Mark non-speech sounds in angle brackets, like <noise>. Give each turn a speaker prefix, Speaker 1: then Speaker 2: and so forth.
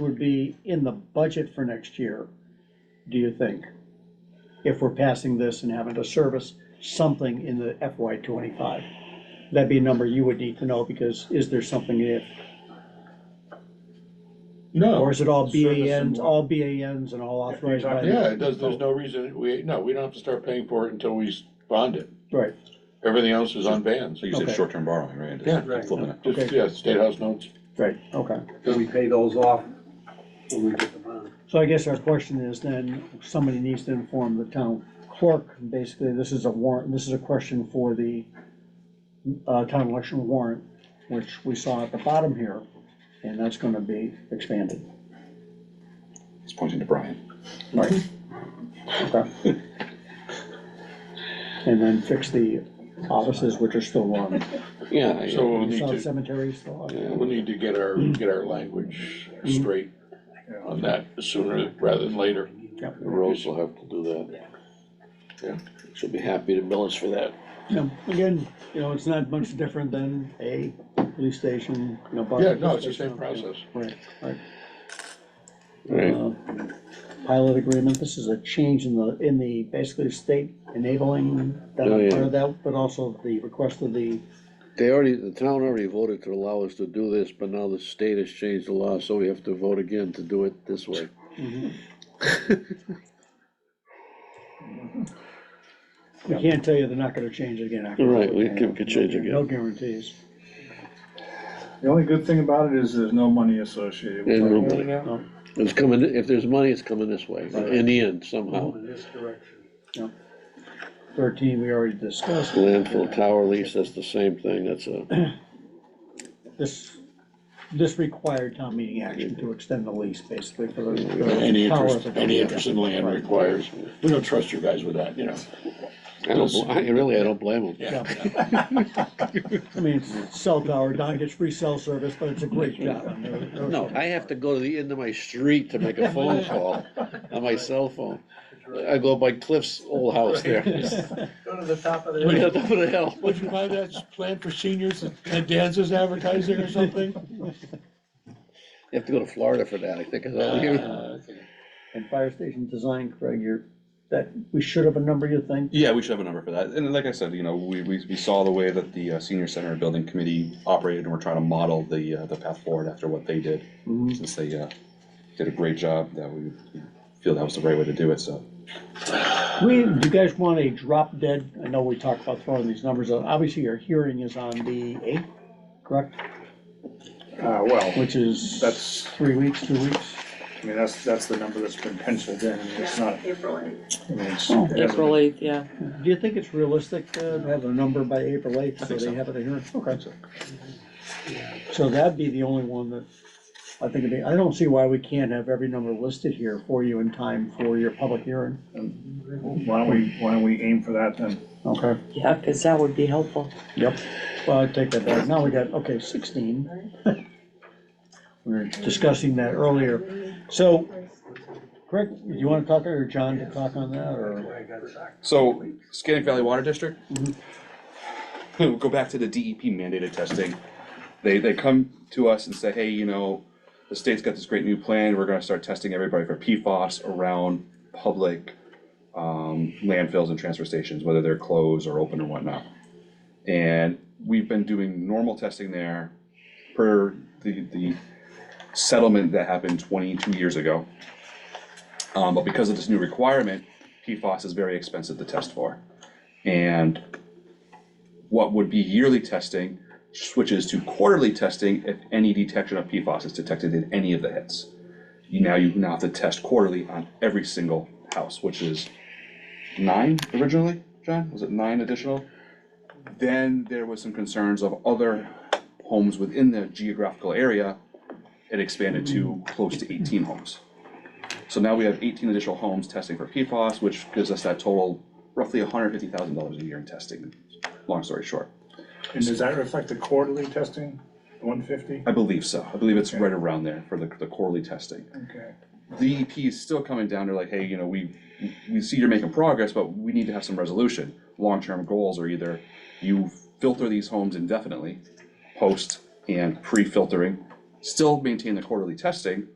Speaker 1: would be in the budget for next year, do you think? If we're passing this and having to service something in the FY twenty-five? That'd be a number you would need to know, because is there something if,
Speaker 2: No.
Speaker 1: or is it all
Speaker 2: Service and
Speaker 1: BANs,
Speaker 2: what?
Speaker 1: all BANs and all authorized by? the-
Speaker 2: Yeah, it does, there's no reason, we, no, we don't have to start paying for it until we s- bond it.
Speaker 1: Right,
Speaker 2: Everything else is on bands.
Speaker 3: So you said
Speaker 1: Okay.
Speaker 3: short-term borrowing, right?
Speaker 2: Yeah.
Speaker 4: Right.
Speaker 3: Flipping it.
Speaker 2: Just,
Speaker 1: Okay.
Speaker 2: yeah, state house notes.
Speaker 1: right, okay.
Speaker 4: Do we pay those off when we get the bond?
Speaker 1: So I guess our question is then, somebody needs to inform the town clerk, basically, this is a warrant, this is a question for the uh, town election warrant, which we saw at the bottom here, and that's gonna be expanded.
Speaker 3: It's pointing to Brian.
Speaker 1: Right. Okay. And then fix the offices which are still on,
Speaker 3: Yeah.
Speaker 2: So we'll need
Speaker 1: South
Speaker 2: to,
Speaker 1: Cemetery is still on.
Speaker 2: yeah, we'll need to get our,
Speaker 5: Mm-hmm.
Speaker 2: get our language straight on that sooner rather than later.
Speaker 1: Yep.
Speaker 5: Rose will have to do that. Yeah, she'll be happy to bill us for that.
Speaker 1: Now, Again, you know, it's not much different than a police station, you know. bus-
Speaker 2: Yeah, no, it's the same process.
Speaker 1: Right, right.
Speaker 5: Right.
Speaker 1: uh, pilot agreement, this is a change in the, in the, basically state enabling that,
Speaker 5: Oh, yeah.
Speaker 1: part of that, but also the request of the,
Speaker 5: They already, the town already voted to allow us to do this, but now the state has changed the law, so we have to vote again to do it this way.
Speaker 1: we can't tell you they're not gonna change it again after.
Speaker 5: Right, we can- can change again.
Speaker 1: No guarantees.
Speaker 6: The only good thing about it is there's no money associated
Speaker 5: There's
Speaker 6: with
Speaker 5: no
Speaker 6: it.
Speaker 5: money. It's coming, if there's money, it's coming this way, in the end somehow.
Speaker 4: In this direction.
Speaker 1: Thirteen, we already discussed,
Speaker 5: Landfill tower lease, that's the same thing, that's a,
Speaker 1: this, this required town meeting action to extend the lease, basically, for the. for the
Speaker 2: Any
Speaker 1: power
Speaker 2: interest,
Speaker 1: of the-
Speaker 2: any interest in land
Speaker 1: Right.
Speaker 2: requires, we don't trust you guys with that, you know?
Speaker 5: I don't, bl- I, really, I don't blame them.
Speaker 2: Yeah.
Speaker 1: I mean, it's cell tower, Don gets free cell service, but it's a great job. I mean, no-
Speaker 5: No, I have to go to the end of my street to make a phone call on my cell phone. I go by Cliff's old house <laughs> there.
Speaker 4: Go to the top of the.
Speaker 5: Way up on the hill.
Speaker 2: Would you buy that plan for seniors and dances advertising or something?
Speaker 5: You have to go to Florida for that, I think, is all
Speaker 2: Uh,
Speaker 5: you.
Speaker 2: okay.
Speaker 1: And fire station design, Craig, you're, that, we should have a number, you think?
Speaker 3: Yeah, we should have a number for that. And like I said, you know, we, we, we saw the way that the uh, senior center building committee operated and we're trying to model the, uh, the path forward after what they did.
Speaker 2: Mm-hmm.
Speaker 1: Mhm.
Speaker 3: Since they, uh, did a great job, that we we feel that was the right way to do it, so.
Speaker 1: We, do you guys want a drop dead? I know we talked about throwing these numbers out. Obviously, your hearing is on the eighth, correct?
Speaker 6: Uh, well,
Speaker 1: Which is.
Speaker 6: That's-
Speaker 1: Three weeks, two weeks?
Speaker 6: I mean, that's, that's the number that's been penciled in, it's not,
Speaker 7: April eighth.
Speaker 6: I mean, it's.
Speaker 1: Oh.
Speaker 6: it hasn't
Speaker 7: April
Speaker 6: been-
Speaker 7: eighth, yeah.
Speaker 1: Do you think it's realistic uh, to have a number by April eighth, so
Speaker 3: think
Speaker 1: they
Speaker 3: so.
Speaker 1: have it here? Okay. So that'd be the only one that, I think, it'd be- I don't see why we can't have every number listed here for you in time for your public hearing.
Speaker 6: Why don't we, why don't we aim for that then?
Speaker 1: Okay.
Speaker 7: Yeah, because that would be helpful.
Speaker 1: Yep. Well, I take that back. Now we got, okay, sixteen. <laughs> We were discussing that earlier. So, Craig, do you wanna talk, or John to talk on that, or?
Speaker 3: So, Scannick Valley Water District? We'll <laughs> Go back to the DEP mandated testing. They, they come to us and say, hey, you know, the state's got this great new plan, we're gonna start testing everybody for PFOS around public um, landfills and transfer stations, whether they're closed or open or whatnot. And we've been doing normal testing there per the, the settlement that happened twenty-two years ago. Um, but because of this new requirement, PFOS is very expensive to test for. And what would be yearly testing switches to quarterly testing if any detection of PFOS is detected in any of the hits. You Now you now have to test quarterly on every single house, which is nine originally, John? Was it nine additional? Then there was some concerns of other homes within the geographical area. It expanded to close to eighteen homes. So now we have eighteen additional homes testing for PFOS, which gives us that total roughly hundred fifty thousand dollars a year in testing, long story short.
Speaker 6: And does that reflect the quarterly testing, one fifty?
Speaker 3: I believe so. I believe it's right around there for the, the quarterly testing.
Speaker 6: Okay.
Speaker 3: The EP is still coming down, they're like, hey, you know, we, we see you're making progress, but we need to have some resolution. Long-term goals are either you filter these homes indefinitely, post and pre-filtering, still maintain the quarterly testing,